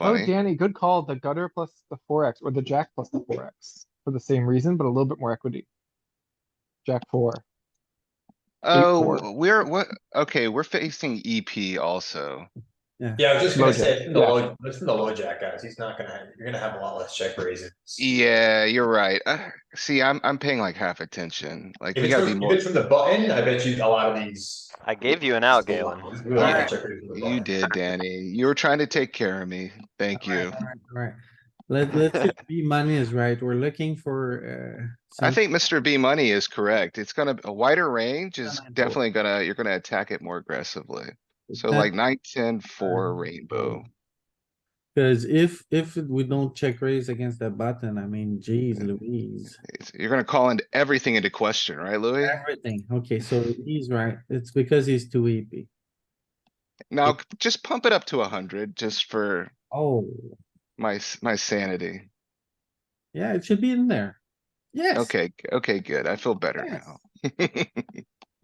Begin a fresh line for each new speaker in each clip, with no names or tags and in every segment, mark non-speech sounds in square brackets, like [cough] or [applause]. Oh,
funny.
Danny, good call. The gutter plus the four X or the jack plus the four X for the same reason, but a little bit more equity. Jack four.
Oh, we're, what, okay, we're facing EP also.
Yeah, I was just gonna
Low jack,
say, from the
yeah.
low, it's from the low jack guys, he's not gonna, you're gonna have a lot less check raises. If
Yeah, you're right. Uh, see, I'm, I'm paying like half attention. Like, we
it's
gotta be
from, if
more.
it's from the button, I bet you a lot of these.
I gave you an out,
there's a lot-
Galen.
there's really a lot of
Alright.
check raises from the
You
button.
did, Danny. You were trying to take care of me. Thank you.
Alright, let, let's,
[laughs]
see if B money is right, we're looking for, uh.
I
some-
think Mr. B money is correct. It's gonna, a wider range is
nine, four.
definitely gonna, you're gonna attack it more aggressively. So
that-
like nine, ten, four rainbow.
Cause if, if we don't check raise against the button, I mean, geez Louise,
It's- You're gonna call in everything into question, right, Louis?
everything, okay, so he's right, it's because he's too EP.
Now, c- just pump it up to a hundred, just for
Oh,
my, s- my sanity.
yeah, it should be in there. Yes.
Okay, okay, good. I feel better
yes.
now.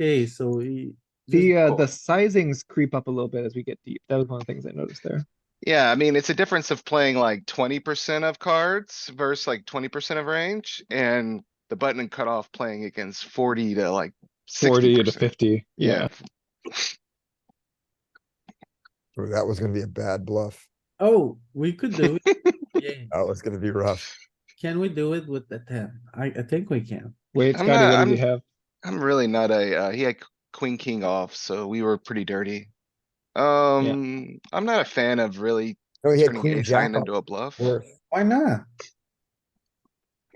Okay, so he.
The,
just-
uh, the sizings creep up a little bit as we get deep. That was one of the things I noticed there.
[laughs] Yeah, I mean, it's a difference of playing like twenty percent of cards versus like twenty percent of range and the button and cutoff playing against forty to like sixty
Forty to
percent.
fifty.
Yeah,
Ooh, That was gonna be a bad bluff.
Oh, we could do
[laughs]
it. Yeah.
That was gonna be rough.
Can we do it with the ten? I, I think we can.
Wait,
I'm
Scotty, what
not-
do you have?
I'm really not a, uh, he had q- queen, king off, so we were pretty dirty. Um, I'm not a fan of really
No, Oh, he had
turning
queen
ace
jack
nine
off
into a bluff,
worth.
Why not?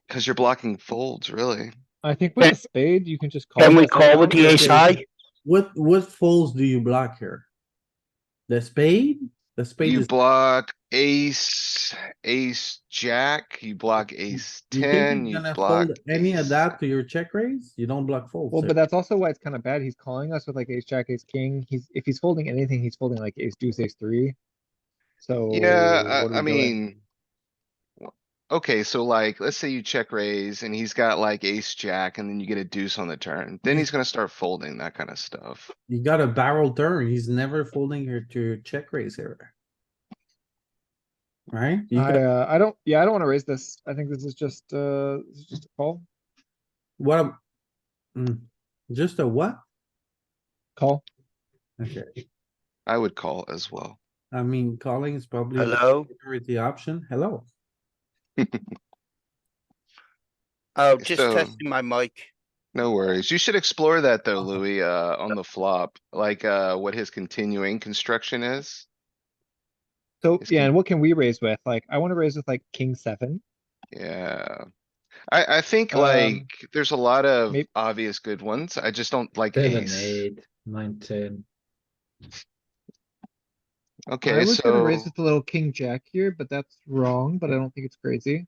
cuz you're blocking folds, really.
I think with a spade, you can just call.
Can we
this
call
out.
with the ace high?
What, what folds do you block here? The spade? The spade
You
is,
block ace, ace, jack, you block ace
you
ten,
think
you
you're gonna
block.
fold any of
ace-
that to your check raise? You don't block folds.
Well, but
here.
that's also why it's kind of bad. He's calling us with like ace, jack, ace, king. He's, if he's folding anything, he's folding like ace, deuce, ace, three. So.
Yeah,
Oh,
uh,
what are
I, I
we doing?
mean. w- Okay, so like, let's say you check raise and he's got like ace, jack, and then you get a deuce on the turn, then he's gonna start folding that kind of stuff.
You got a barrel turn. He's never folding here to your check raise here. Right? You
I,
got-
uh, I don't, yeah, I don't wanna raise this. I think this is just, uh, this is just a call,
What? am- Mm, Just a what?
call.
Okay,
I would call as well.
I mean, calling is probably. the
Hello?
Security option. Hello.
Oh, just
So-
testing my mic.
No worries. You should explore that though,
Uh-huh.
Louis, uh, on the flop, like, uh, what his continuing construction is.
So,
It's
yeah,
con-
and what can we raise with? Like, I wanna raise with like king seven.
Yeah. I, I think
Um,
like, there's a lot of
mayb-
obvious good ones. I just don't like
Seven,
ace.
eight, nine, ten.
I
Okay,
was gonna
so,
raise with a little king jack here, but that's wrong, but I don't think it's crazy.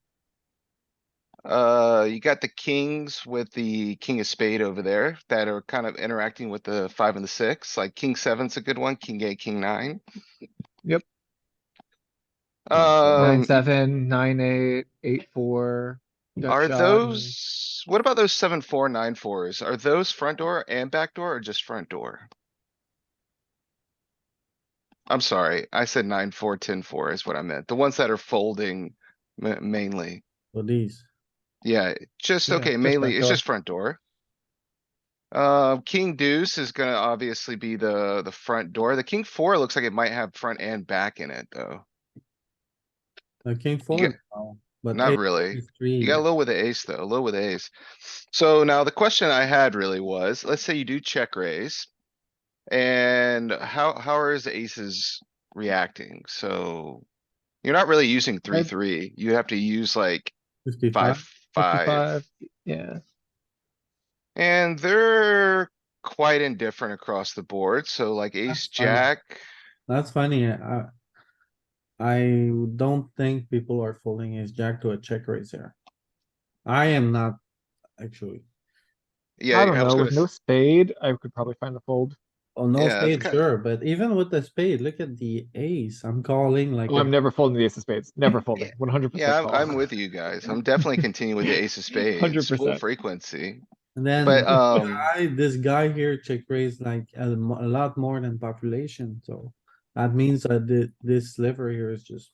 uh, you got the kings with the king of spade over there that are kind of interacting with the five and the six, like king seven's a good one, king eight, king nine.
Yep. Nine,
Um,
seven, nine, eight, eight, four. gut
Are
shot, and-
those, what about those seven, four, nine, fours? Are those front door and back door or just front door? I'm sorry, I said nine, four, ten, four is what I meant. The ones that are folding ma- mainly.
For these.
Yeah, just,
Yeah,
okay,
just
mainly,
front
it's
door.
just front door. Uh, king deuce is gonna obviously be the, the front door. The king four looks like it might have front and back in it, though.
I came forward. now, But.
Not
eight
really.
is three.
You got low with the ace though, low with the ace. So now the question I had really was, let's say you do check raise. And how, how are his aces reacting? So. You're not really using three,
I'd-
three. You have to use like five,
55.
five.
55, Yeah,
And they're quite indifferent across the board. So like ace,
fine.
jack.
That's funny. I, I don't think people are folding his jack to a check raise here. I am not, actually.
Yeah,
I don't
was
know,
gonna
with no
s-
spade, I could probably find a fold.
Oh, no
Yeah, it's
spade,
kind-
sure, but even with the spade, look at the ace. I'm calling like.
Oh,
a-
I'm never folding the ace of spades,
[laughs]
never folding, one hundred percent.
Yeah, I'm, I'm with you guys. I'm definitely continuing
[laughs]
with the ace of spades, full
100%.
frequency.
And then.
But,
this
um,
guy- This guy here check raised like a mo- a lot more than population, so that means that the, this sliver here is just